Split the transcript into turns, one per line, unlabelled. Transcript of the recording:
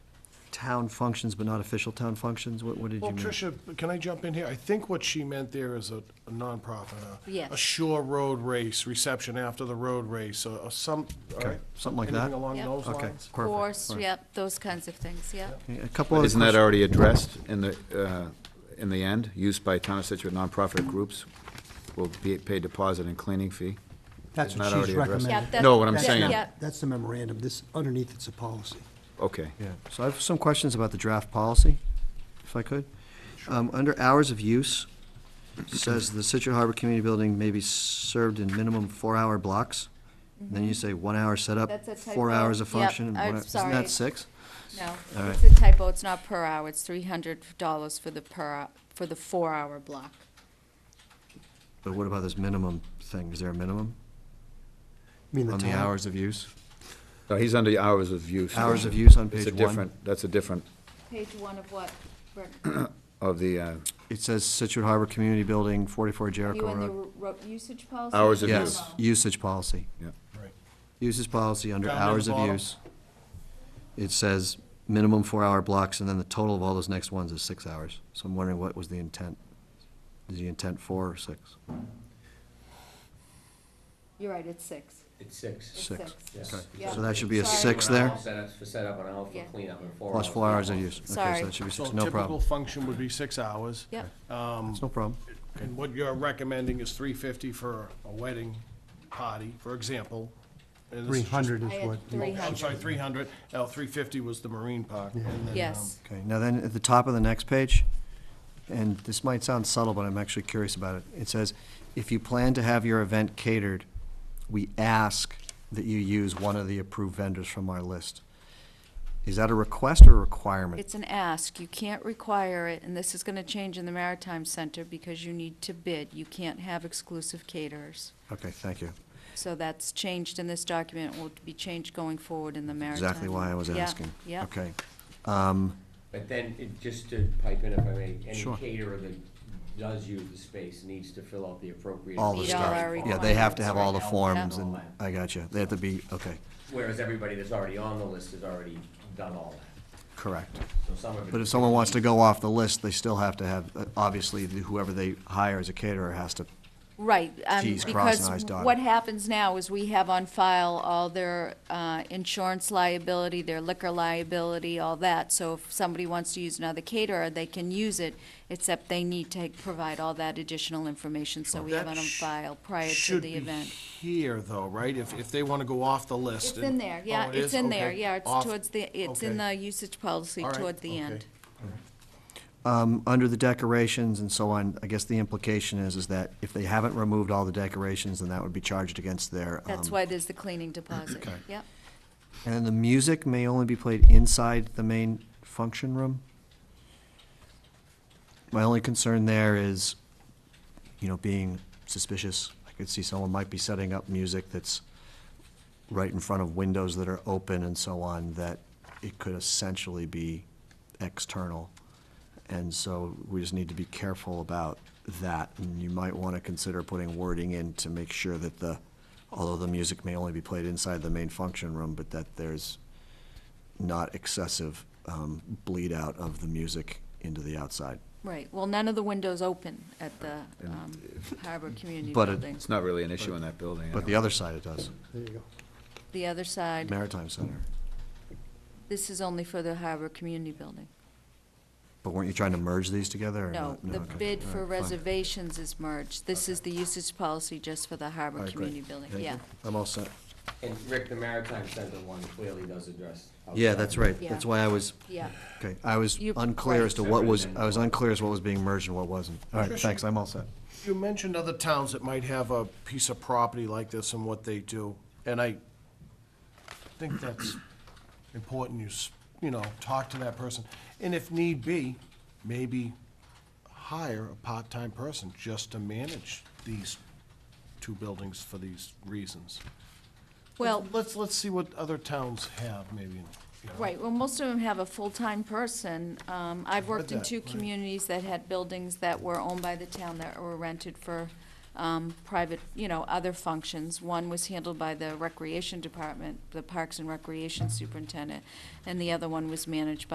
town functions but not official town functions? What, what did you
Well,
mean?
Tricia, can I jump in here? I think what she meant there is a a nonprofit, a.
Yes.
A shore road race, reception after the road race, or or some, all right?
something like that.
Anything along
Yep.
those
Okay,
lines?
perfect.
Course,
All right.
yep, those kinds of things, yep.
Okay, A couple other
Isn't that
questions.
already addressed in the, uh, in the end? Used by town of Situate nonprofit groups will be paid deposit and cleaning fee?
That's
Not
what
already
she's
addressed.
recommending.
Yep, that-
No, what I'm
That's
saying-
not-
Yeah.
That's the memorandum, this, underneath it's a policy.
Okay.
Yeah, so I have some questions about the draft policy, if I could. Um, Under hours of use, it says the Situate Harbor Community Building may be served in minimum four-hour blocks. And then you say one hour setup,
Mm-hmm. That's a
four
typo.
hours of
Yep,
function. and
I'm
one hour- Isn't
sorry.
that six?
No,
All
it's a typo, it's not per hour, it's three hundred dollars for the per, hou- for the four-hour block.
But what about this minimum thing? Is there a minimum
I mean, the
on the
time.
hours of use?
No, he's under hours of use.
Hours of use on
It's a
page one.
different, that's a different
Page one of what, Rick?
of the, uh,
It says Situate Harbor Community Building, 44
You
Jericho
and the
Road.
ro- usage policy? Uh-huh.
Hours of
Yes,
use.
usage policy.
yeah.
Right.
Uses policy under
Down near the
hours of
bottom.
use. It says minimum four-hour blocks, and then the total of all those next ones is six hours. So I'm wondering what was the intent? Is the intent four or six?
You're right, it's six.
It's six.
It's
Six.
six.
Okay.
Yeah.
So that should be a
Sorry.
six there,
Set up- For setup and hour for
Yeah.
cleanup and four hours.
plus four hours of use. Okay,
Sorry.
so that should be
So
six, no
typical
problem.
function would be six hours. Um,
Yep,
It's no problem.
And what you're recommending is three fifty for a wedding party, for example. and this is just-
300
I
is
had
what.
three
Oh, I'm sorry, three hundred, L three fifty was the marine park. and then, um,
yes.
Okay, now then, at the top of the next page, and this might sound subtle, but I'm actually curious about it. It says, if you plan to have your event catered, we ask that you use one of the approved vendors from our list. Is that a request or a requirement?
It's an ask, you can't require it, and this is gonna change in the Maritime Center because you need to bid, you can't have exclusive caterers.
Okay, thank you.
So that's changed in this document, will be changed going forward in the Maritime.
Exactly why I was
Yeah,
asking.
Yeah.
Okay,
But then, it- just to pipe in if I may, any
Sure.
caterer that does use the space needs to fill out the appropriate.
all the
Meet all
stuff.
our
Yeah, they have to
requirements,
have all the
right?
forms,
Yeah.
and, I got you. They have to be, okay,
Whereas everybody that's already on the list has already done all that.
correct.
So some of it.
But if someone wants to go off the list, they still have to have, uh, obviously, whoever they hire as a caterer has to
Right, um,
T's crossed and
because
I's dotted.
what happens now is we have on file all their, uh, insurance liability, their liquor liability, all that. So if somebody wants to use another caterer, they can use it, except they need to provide all that additional information, so we have it on
That sh-
file prior to
Should
the
be
event.
here, though, right? If, if they want to go off the list.
It's
and-
in there, yeah,
Oh, it
it's
is?
in there,
Okay.
yeah, it's
Off-
towards the, it's in the
okay.
usage policy
All right,
toward the
okay.
end.
um, under the decorations and so on, I guess the implication is, is that if they haven't removed all the decorations, then that would be charged against their.
That's
um,
why there's the cleaning deposit, yep.
And then the music may only be played inside the main function room. My only concern there is, you know, being suspicious. I could see someone might be setting up music that's right in front of windows that are open and so on, that it could essentially be external. And so we just need to be careful about that. And you might want to consider putting wording in to make sure that the, although the music may only be played inside the main function room, but that there's not excessive um, bleed out of the music into the outside.
Right, well, none of the windows open at the um, Harbor Community
But it-
Building.
It's not really an issue in that building. I
But the
don't-
other side it does,
There you go.
The other side,
Maritime Center.
this is only for the Harbor Community Building.
But weren't you trying to merge these together or
No,
not?
the
okay.
bid
All
for
right, fine.
reservations is merged. This is the usage policy just for the
All
Harbor
right, great.
Community Building,
Thank you.
yeah.
I'm all set.
And Rick, the Maritime Center one clearly does address.
Yeah, that's right.
Yeah.
That's why I was,
Yeah,
okay, I was
You-
unclear as to
right.
what was,
Separate
I was
than-
unclear as what was being merged and what wasn't. All right,
Tricia.
thanks, I'm all set.
You mentioned other towns that might have a piece of property like this and what they do, and I think that's important, you, s- you know, talk to that person. And if need be, maybe hire a part-time person just to manage these two buildings for these reasons.
well,
Let's, let's see what other towns have, maybe. you know.
Right, well, most of them have a full-time person. Um, I've worked in
that,
two
right.
communities that had buildings that were owned by the town that were rented for, um, private, you know, other functions. One was handled by the recreation department, the Parks and Recreation Superintendent, and the other one was managed by.